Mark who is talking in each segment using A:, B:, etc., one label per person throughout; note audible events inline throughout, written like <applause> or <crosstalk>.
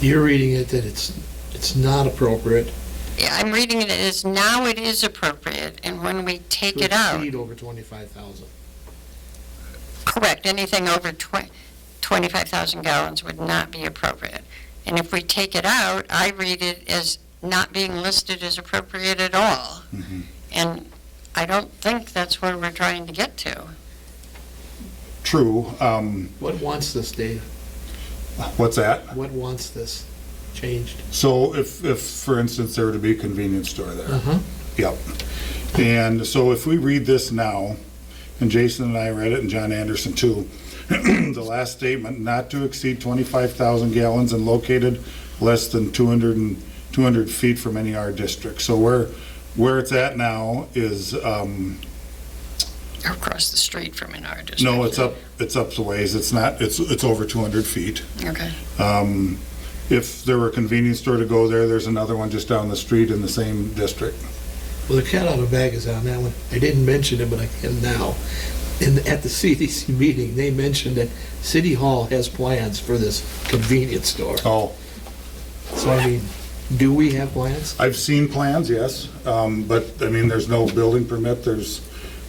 A: you're reading it that it's, it's not appropriate.
B: Yeah, I'm reading it as now it is appropriate, and when we take it
A: To
B: out,
A: exceed over twenty-five thousand.
B: correct, anything over twen- 25,000 gallons would not be appropriate. And if we take it out, I read it as not being listed as appropriate at all.
C: Mhm.
B: And I don't think that's where we're trying to get to.
C: True. Um,
A: What wants this, Dave?
C: what's that?
A: What wants this changed?
C: So if, if, for instance, there were to be a convenience store there.
A: Uh-huh.
C: Yep. And so if we read this now, and Jason and I read it, and John Anderson too, <clears throat> the last statement, not to exceed 25,000 gallons and located less than 200 and, 200 feet from any R district. So where, where it's at now is, um,
B: Across the street from an artist.
C: no, it's up, it's up the ways. It's not, it's, it's over 200 feet.
B: Okay.
C: Um, If there were a convenience store to go there, there's another one just down the street in the same district.
A: Well, the cat out of bag is on that one. I didn't mention it, but I can now. And at the <laughs> CDC meeting, they mentioned that City Hall has plans for this convenience store.
C: Oh,
A: So I mean, do we have plans?
C: I've seen plans, yes, um, but, I mean, there's no building permit, there's,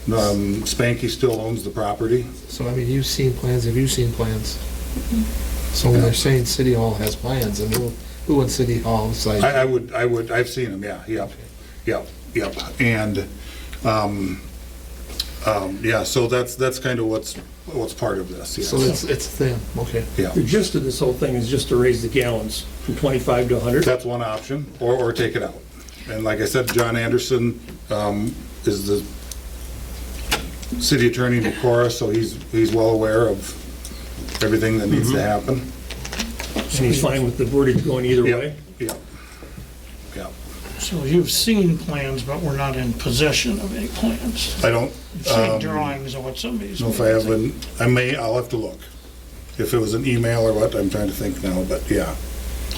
C: um, Spanky still owns the property.
A: So I mean, you've seen plans, have you seen plans? So when they're saying City Hall has plans, and who, who in City Hall is like,
C: I, I would, I would, I've seen them, yeah, yep, yep, yep. And, um, um, yeah, so that's, that's kind of what's, what's part of this,
A: so it's,
C: yes.
A: it's them, okay.
C: Yeah,
D: The gist of this whole thing is just to raise the gallons from 25 to 100.
C: that's one option, or, or take it out. And like I said, John Anderson, um, is the city attorney in Decorah, so he's, he's well aware of everything that needs to happen.
D: And he's fine with the wordage going either
C: Yep,
D: way.
C: Yep, yep.
E: So you've seen plans, but we're not in possession of any plans.
C: I don't,
E: You've
C: um,
E: seen drawings of what somebody's.
C: know if I have an, I may, I'll have to look. If it was an email or what, I'm trying to think now, but yeah.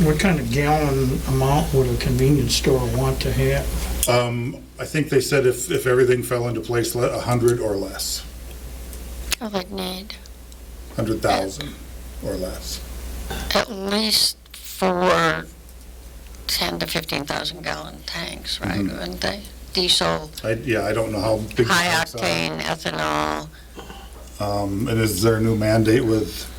E: What kind of gallon amount would a convenience store want to have?
C: Um, I think they said if, if everything fell into place, a hundred or less,
B: I would need
C: hundred thousand or less.
B: at least four 10 to 15,000 gallon tanks, right,
C: Mm-hmm.
B: wouldn't they? Diesel,
C: I, yeah, I don't know how big. uh, the
B: high
C: trucks are.
B: octane, ethanol.
C: Um, and is there a new mandate with,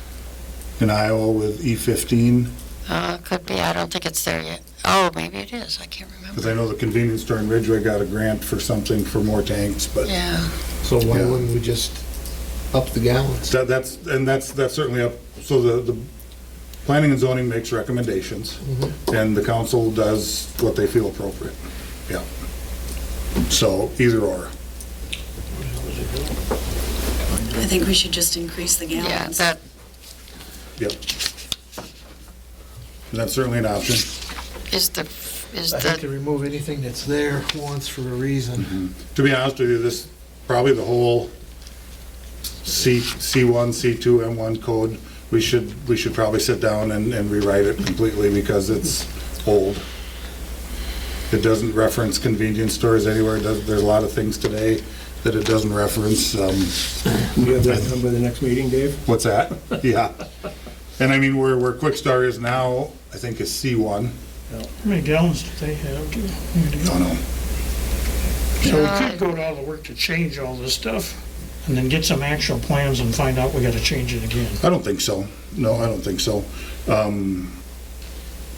C: in Iowa with E fifteen?
B: Uh, could be, I don't think it's there yet. Oh, maybe it is, I can't remember.
C: Cause I know the convenience store in Ridgeway got a grant for something for more tanks, but
B: Yeah,
A: So why
C: Yeah.
A: wouldn't we just up the gallons?
C: That, that's, and that's, that's certainly up, so the, the planning and zoning makes recommendations, and the council does what they feel appropriate, yeah. So either or,
F: I think we should just increase the
B: yeah,
F: gallons.
B: that
C: yep. And that's certainly an option,
B: is the, is
A: I think to
B: the,
A: remove anything that's there once for a reason.
C: to be honest with you, this, probably the whole C, C1, C2, M1 code, we should, we should probably sit down and, and rewrite it completely, because it's old. It doesn't reference convenience stores anywhere, It does- there's a lot of things today that it doesn't reference, um,
D: Do you have that done by the next meeting, Dave?
C: what's that? <laughs> Yeah. And I mean, where, where Quick Star is now, I think is C1,
E: How many gallons do they have? to- to
C: I
E: go?
C: don't know.
E: So we could go to all the work to change all this stuff and then get some actual plans and find out we gotta change it again.
C: I don't think so. No, I don't think so. Um,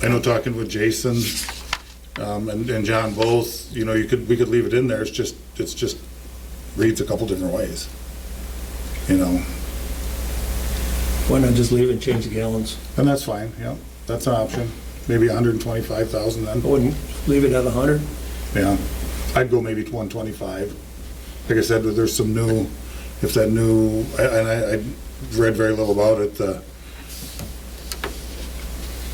C: I know talking with Jason um, and and John both, you know, you could, we could leave it in there. It's just, it's just reads a couple different ways. You know,
D: Why not just leave it and change the gallons?
C: and that's fine, yeah. That's an option. Maybe 125,000
D: I
C: then,
D: wouldn't leave it at 100.
C: yeah. I'd go maybe to 125. Like I said, there's some new, if that new, I- and I, I read very little about it, the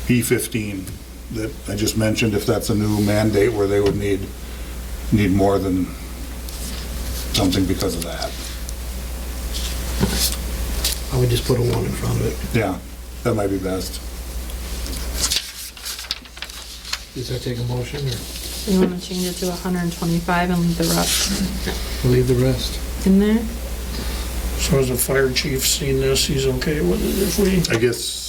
C: E15 that I just mentioned, if that's a new mandate where they would need, need more than something because of that.
A: I would just put a one in front of it.
C: Yeah, that might be best.
A: Does that take a motion or
G: You want to change it to 125 and leave the rest
A: leave the rest?
G: in there?
E: So has the fire chief seen this? He's okay with it if we,
C: I guess